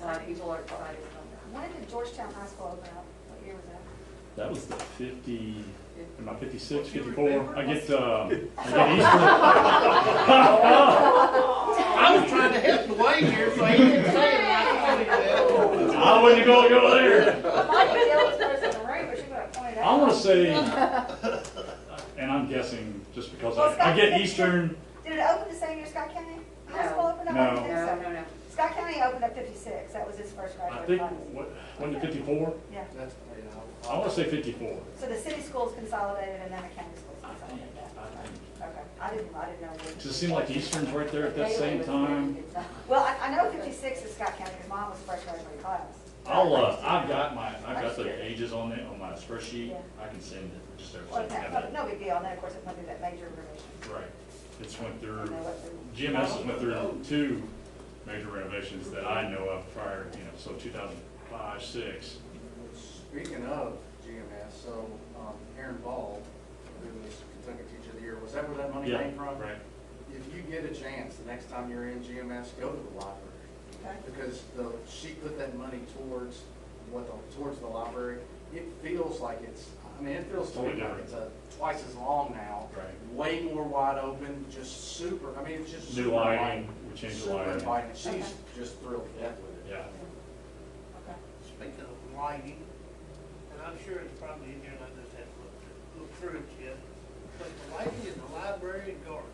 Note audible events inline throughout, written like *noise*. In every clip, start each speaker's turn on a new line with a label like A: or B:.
A: a lot of people are excited about
B: When did Georgetown High School open up? What year was that?
C: That was the fifty,
A: that.
C: am I fifty-six,
A: What you
C: fifty-four?
A: remember?
C: I get, uh, I get Easter.
D: *laughs* I was trying to help Dwayne here, so he didn't say it, and I told him that.
C: *laughs* I wouldn't go, go there.
B: Mike was the oldest person in the room, but she would have pointed out.
C: I wanna say, and I'm guessing just because I, I get Eastern,
B: Did it open the same year Scott County High
A: No.
B: School opened up? I don't
C: No.
B: think
A: No,
B: so.
A: no, no.
B: Scott County opened up fifty-six, that was his first
C: I
B: graduate
C: think,
B: class.
C: what, when did fifty-four?
B: Yeah,
D: That's- yeah,
C: I wanna say fifty-four.
B: so the city schools consolidated and then the county schools
C: I think,
B: consolidated that.
C: I think.
B: Okay, I didn't, I didn't know. when-
C: Does it seem like Eastern's right there at that same time?
B: Well, I, I know fifty-six is Scott County, because mine was first graduate class.
C: I'll, uh, I've got my, I've got the ages on it, on my spreadsheet, I can send it, just
B: Well,
C: everything.
B: it's not-
C: Got it.
B: no big deal, and then, of course, it's gonna be that major revision.
C: Right, it's went
B: And
C: through,
B: then what the-
C: GMS has went through two major renovations that I know of prior, you know, so two thousand five, six.
D: Speaking of GMS, so um, Aaron Ball, who was Kentucky Teacher of the Year, was that where that money
C: Yeah,
D: came from?
C: Right,
D: If you get a chance, the next time you're in GMS, go to the library.
B: Okay.
D: Because the, she put that money towards what the, towards the library. It feels like it's, I mean, it feels to me
C: Totally
D: like
C: different.
D: it's a, twice as long now.
C: Right.
D: Way more wide open, just super, I mean, it's just.
C: new
D: super
C: lighting,
D: inviting.
C: we changed the
D: Super
C: lighting,
D: inviting. She's
B: Okay.
D: just thrilled to death with it.
C: yeah.
B: Okay.
E: Speaking of lighting, and I'm sure it's probably in here, and I just haven't looked, looked through it yet, but the lighting in the library and garden,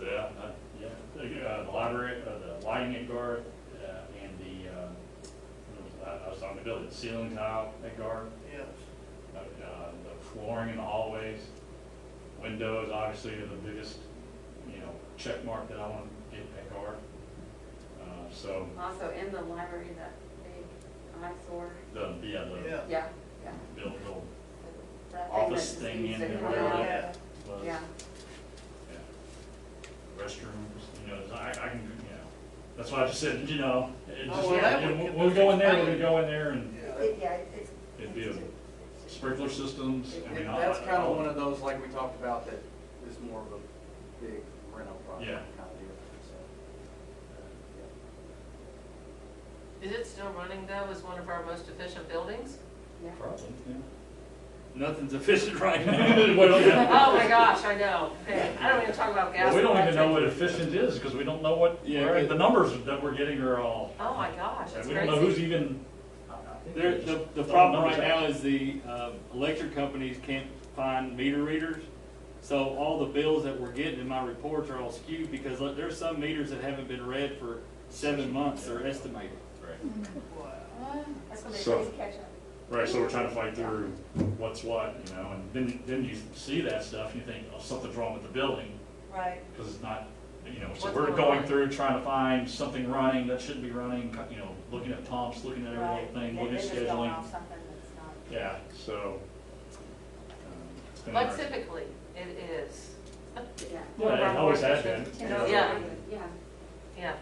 C: Yeah, uh, yeah, The, uh, the library, uh, the lighting at Guard, uh, and the, uh, I- I was talking about the ceiling tile at Guard,
E: yes.
C: uh, uh, the flooring in the hallways, windows, obviously, are the biggest, you know, check mark that I want to get at Guard. Uh, so,
A: Also in the library, that big eyesore,
C: the, yeah, the
E: Yeah.
A: yeah, yeah.
C: build, build
A: That thing that
C: office
A: just
C: thing
A: needs
C: in
A: to
C: there,
A: come
C: whatever
A: out.
C: that was.
A: Yeah,
C: Yeah. Restrooms, you know, I, I can, you know, that's why I just said, you know, it
E: Oh,
C: just,
E: well, that would-
C: when we go in there, we're gonna go in there and
B: It- Yeah, it- it's.
C: it'd be a sprinkler systems, I mean,
D: It-
C: all
D: That's
C: that-
D: kind
C: all
D: of one
C: that.
D: of those, like we talked about, that is more of a big rental project
C: Yeah.
D: kind of deal, so. uh,
F: Is it still running though as one of our most efficient buildings?
C: Probably, yeah.
G: Nothing's
C: *laughs*
G: efficient right now.
C: Well, yeah.
F: *laughs* Oh my gosh, I know. Hey, I don't even talk about gas.
C: Well, we don't
F: and
C: even know what
F: electric.
C: efficient is, because we don't know what,
G: Yeah,
C: where-
G: it-
C: the numbers that we're getting are all,
F: Oh my gosh,
C: and
F: that's
C: we don't know who's
F: crazy.
C: even.
G: There, the, the problem right now is the, uh, electric companies can't find meter readers. So all the bills that we're getting in my reports are all skewed because like, there's some meters that haven't been read for seven months, they're estimated.
C: Right.
E: Wow.
B: That's gonna be a
C: So-
B: crazy catch up.
C: Right, so we're trying to fight through what's what, you know, and then, then you see that stuff, and you think, oh, something's wrong with the building,
B: Right.
C: because it's not, you know, so
F: What's
C: we're
F: going
C: going
F: on?
C: through trying to find something running that shouldn't be running, you know, looking at Tom's, looking at every little
B: right.
C: thing,
B: They-
C: looking
B: they're
C: at
B: just going
C: scheduling.
B: off something that's not-
C: Yeah, so. um, it's been
F: But
C: hard.
F: typically, it is.
A: yeah.
C: Yeah, it always has been.
A: Yeah.
C: you know.
F: Yeah.
A: Yeah.
F: Yeah.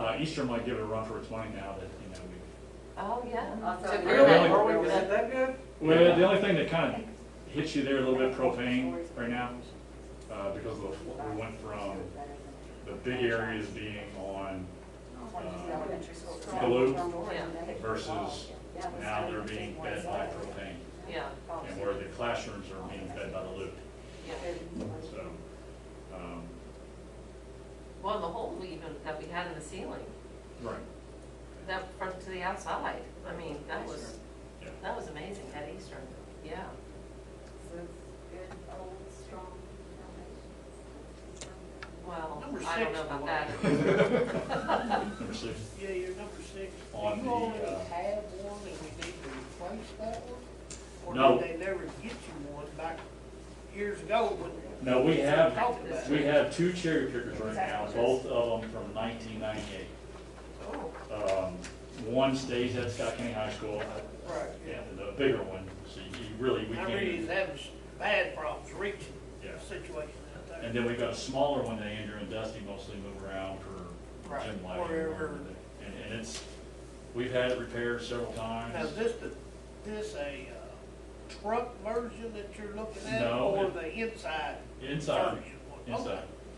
C: Uh, Eastern might give it a run for its money now that, you know, we
F: Oh, yeah.
A: Also-
F: So
C: Really?
F: we're not-
D: Are we, is it that good?
C: Well, the only thing that kind of hits you there a little bit propane right now, uh, because of, we went from the big areas being on
B: Oh,
A: Elementary school.
C: blue
F: Yeah.
C: versus now they're being fed by propane.
F: Yeah,
C: And where the classrooms are being fed by the loop,
F: yeah.
C: so, um,
F: Well, the hole we even, that we had in the ceiling,
C: right,
F: that front to the outside, I mean, that was,
C: yeah. *laughs*
F: that was amazing at Eastern, yeah.
A: So it's good, old, strong foundation.
F: Well,
E: Number
F: I don't
E: six,
F: know about
E: boy.
F: *laughs* that.
C: Number six,
E: Yeah, you're number six. Do
C: On the,
E: you already
C: uh,
E: have one and we need to replace that one?
C: No.
E: Or did they never get you one back years ago when?
C: No, we have-
E: Talked about it.
C: we have two cherry pickers right now, both of them from nineteen ninety-eight.
E: Oh,
C: Um, one stays at Scott County High School,
E: right,
C: yeah,
E: yeah.
C: the bigger one, so you really, we
E: I
C: can't.
E: really is having some bad problems reaching
C: Yeah.
E: the situation out there.
C: And then we've got a smaller one that Andrew and Dusty mostly move around for
E: Right,
C: gym lighting.
E: wherever.
C: And, and it's, we've had it repaired several times.
E: Now, is this the, this a uh, truck version that you're looking at?
C: No,
E: Or
C: it-
E: the inside?
C: Inside,
E: version?
C: inside.